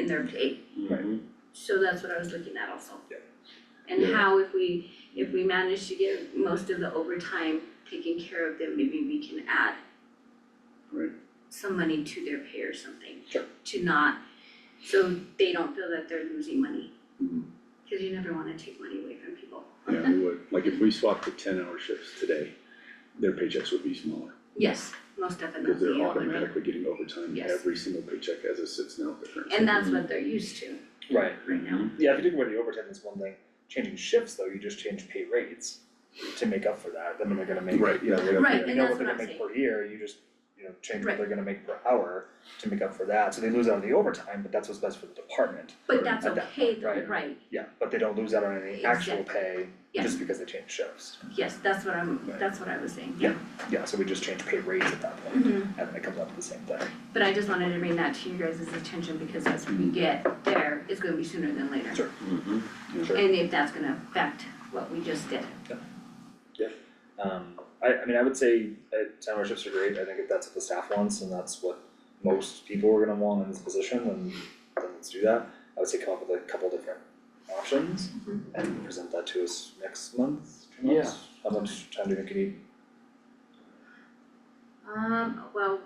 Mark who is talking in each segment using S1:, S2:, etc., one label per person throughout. S1: in their pay.
S2: Right.
S1: So that's what I was looking at also.
S2: Yeah.
S1: And
S2: Yeah.
S1: how if we, if we manage to get most of the overtime taken care of, then maybe we can add
S2: Right.
S1: some money to their pay or something.
S2: Sure.
S1: To not, so they don't feel that they're losing money,
S2: Mhm.
S1: cause you never wanna take money away from people.
S2: Yeah, we would, like if we swapped the ten hour shifts today, their paychecks would be smaller,
S1: Yes, most definitely.
S2: because they're
S1: it would be.
S2: automatically getting overtime
S1: Yes.
S2: every single paycheck as it sits now at the current.
S1: And that's what they're used to
S3: Right,
S1: right now.
S3: yeah, if you take away the overtime, that's one thing, changing shifts though, you just change pay rates to make up for that, then they're gonna make,
S2: Right,
S3: you
S2: yeah,
S3: know,
S2: yeah.
S1: Right,
S3: you
S1: and
S3: know
S1: that's
S3: what they're
S1: what
S3: gonna
S1: I'm
S3: make per year, you just, you know, change what
S1: Right.
S3: they're gonna make per hour to make up for that, so they lose out on the overtime, but that's what's best for the department.
S1: But that's
S3: At that
S1: okay
S3: point,
S1: though,
S3: right.
S1: right?
S3: Yeah, but they don't lose out on any actual pay
S1: Yeah.
S3: just because they change shifts,
S1: Yes, that's what I'm,
S3: Right.
S1: that's what I was saying.
S3: Yeah. yeah, so we just change pay rates at that point,
S1: Mhm.
S3: and then it comes up to the same thing.
S1: But I just wanted to bring that to you guys' attention because as we get there, it's gonna be sooner than later.
S3: Sure.
S1: Mm-hmm.
S2: Mhm.
S3: Sure.
S1: And if that's gonna affect what we just did.
S3: Um, I, I mean, I would say, uh, ten hour shifts are great, I think if that's what the staff wants and that's what most people are gonna want in this position, then, then let's do that. I would say come up with a couple different options
S1: Mhm.
S3: and present that to us next month, two months. How much time do you think you need?
S1: Um, well,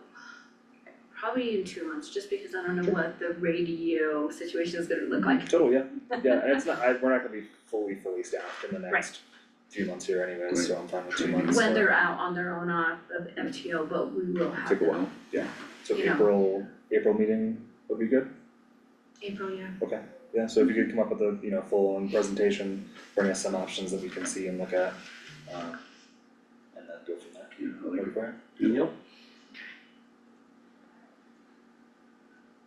S1: probably in two months, just because I don't know what the radio situation is gonna look like.
S3: Total, yeah, yeah, and it's not, I, we're not gonna be fully, fully staffed in the next few months here anyways, so I'm fine with two
S2: Right.
S3: months.
S1: When
S3: so-
S1: they're out on their own off of FTO, but we will have
S2: Took a
S1: them.
S2: while,
S3: So
S1: you know.
S3: April, April meeting would be good?
S1: April, yeah.
S3: Yeah, so if you could come up with a, you know, full-on presentation, bring us some options that we can see and look at, um, and then go from there.
S2: yeah, I like
S3: Look
S2: it.
S3: for it.
S2: Yep.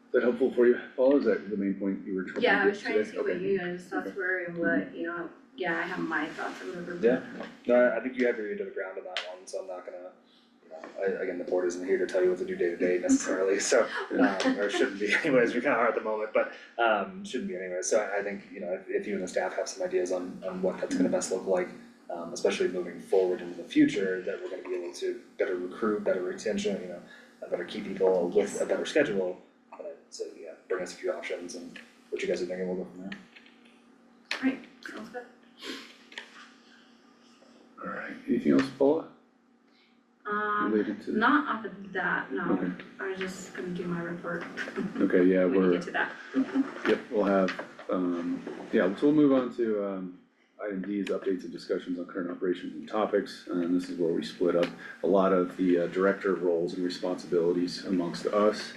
S2: Is that helpful for you, Paul, is that the main point you were trying to
S1: Yeah, I
S2: get
S1: was trying to
S2: today?
S1: see what
S2: Okay. Mm-hmm.
S1: you guys' thoughts were and what, you know, yeah, I have my thoughts or whatever. but-
S3: Yeah. No, I, I think you have your ear to the ground on that one, so I'm not gonna, you know, I, again, the board isn't here to tell you what to do day to day necessarily, so, um, or shouldn't be anyways, we kinda are at the moment, but, um, shouldn't be anyways, so I, I think, you know, if, if you and the staff have some ideas on, on what that's gonna best look like, um, especially moving forward into the future, that we're gonna be able to better recruit, better retention, you know, uh, better keep people with a better schedule, uh, so, yeah, bring us a few options and what you guys are thinking, we'll go from there.
S1: Right, sounds good.
S2: Alright, anything else, Paula,
S1: Um,
S2: related to?
S1: not off of that, no,
S2: Okay.
S1: I was just gonna do my report
S2: Okay, yeah,
S1: when we
S2: we're,
S1: get to that.
S2: Yep, we'll have, um, yeah, so we'll move on to, um, item D is updates and discussions on current operations and topics. Uh, And this is where we split up a lot of the uh, director roles and responsibilities amongst us,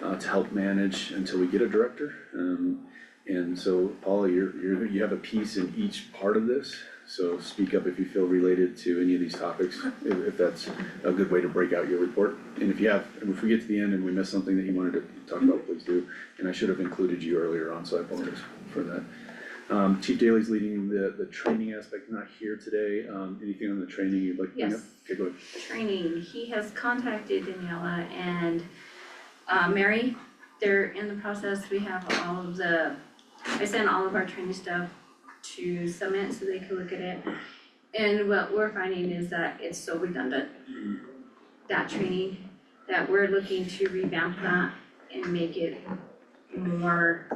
S2: uh, to help manage until we get a director. Um, and so Paula, you're, you're, you have a piece in each part of this, so speak up if you feel related to any of these topics, if, if that's a good way to break out your report. And if you have, and if we get to the end and we miss something that you wanted to talk about, please do. And I should have included you earlier on, so I apologize for that. Um, Chief Daly's leading the, the training aspect, not here today, um, anything on the training you'd like to bring up?
S1: Yes.
S2: Okay, go ahead.
S1: Training, he has contacted Daniela and, uh, Mary, they're in the process, we have all of the, I sent all of our training stuff to Summit so they can look at it. And what we're finding is that it's so redundant, that training, that we're looking to revamp that and make it more.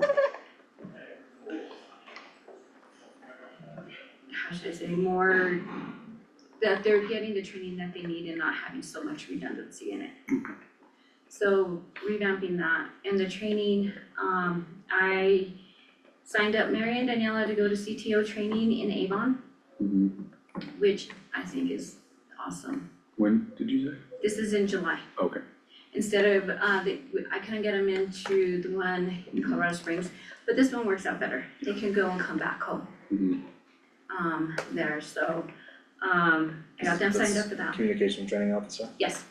S1: How should I say, more, that they're getting the training that they need and not having so much redundancy in it. So revamping that and the training, um, I signed up Mary and Daniela to go to CTO training in Avon,
S2: Mhm.
S1: which I think is awesome.
S2: When did you say?
S1: This is in July.
S2: Okay.
S1: Instead of, uh, the, I couldn't get them into the one in Colorado Springs, but this one works out better. They can go and come back home,
S2: Mhm.
S1: um, there, so, um, I got them signed up for that.
S3: Communication training officer.
S1: Yes.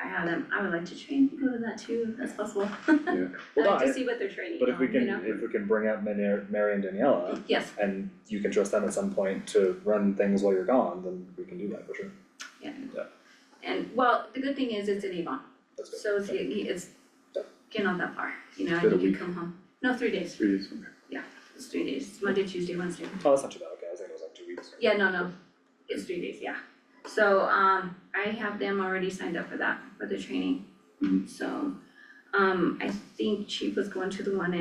S1: I have them, I would like to train, go to that too, if that's possible. I'd
S3: Well, no,
S1: like
S3: I-
S1: to see what they're training
S3: But if we
S1: on, you
S3: can,
S1: know?
S3: if we can bring out Mary, Mary and Daniela,
S1: Yes,
S3: and you can trust them at some point to run things while you're gone, then we can do that for sure.
S1: and well, the good thing is it's in Avon,
S3: That's good.
S1: so it's, it's, you're not that far, you know,
S2: Is that a
S1: and you
S2: week?
S1: can come home. No, three days,
S2: Three days, okay.
S1: it's three days, It's Monday, Tuesday, Wednesday.
S3: Oh, that's not too bad, okay, I think it was like two weeks.
S1: Yeah, no, no, it's three days, yeah.
S3: Mm-hmm.
S1: So, um, I have them already signed up for that, for the training.
S2: Mhm.
S1: So, Um, I think Chief was going to the one